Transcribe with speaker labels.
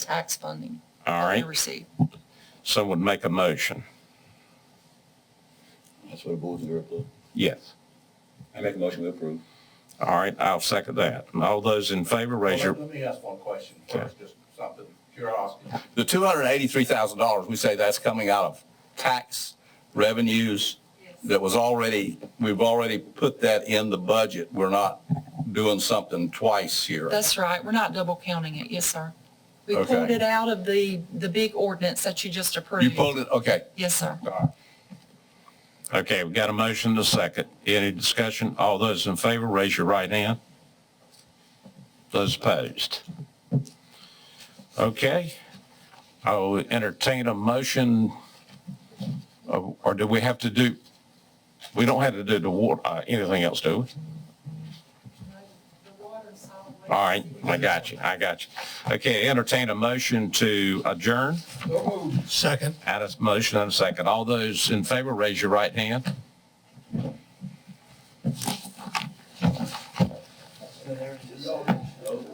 Speaker 1: tax funding
Speaker 2: All
Speaker 1: that we
Speaker 2: right,
Speaker 1: receive.
Speaker 2: someone make a motion.
Speaker 3: That's what the board's here for.
Speaker 2: Yes.
Speaker 3: I make a motion, we approve.
Speaker 2: All right, I'll second that. And all those in favor, raise your,
Speaker 4: Let me ask one question
Speaker 2: Okay.
Speaker 4: first, just something, curiosity.
Speaker 3: The two hundred and eighty-three thousand dollars, we say that's coming out of tax revenues that was already, we've already put that in the budget. We're not doing something twice here.
Speaker 1: That's right, we're not double counting it, yes, sir. We
Speaker 3: Okay.
Speaker 1: pulled it out of the, the big ordinance that you just approved.
Speaker 3: You pulled it, okay.
Speaker 1: Yes, sir.
Speaker 2: okay, we got a motion to second. Any discussion? All those in favor, raise your right hand. Those opposed. Okay, I'll entertain a motion, uh, or do we have to do, we don't have to do the water, uh, anything else, do we? All right, I got you, I got you. Okay, entertain a motion to adjourn.
Speaker 5: Second.
Speaker 2: Out of motion and a second. All those in favor, raise your right hand.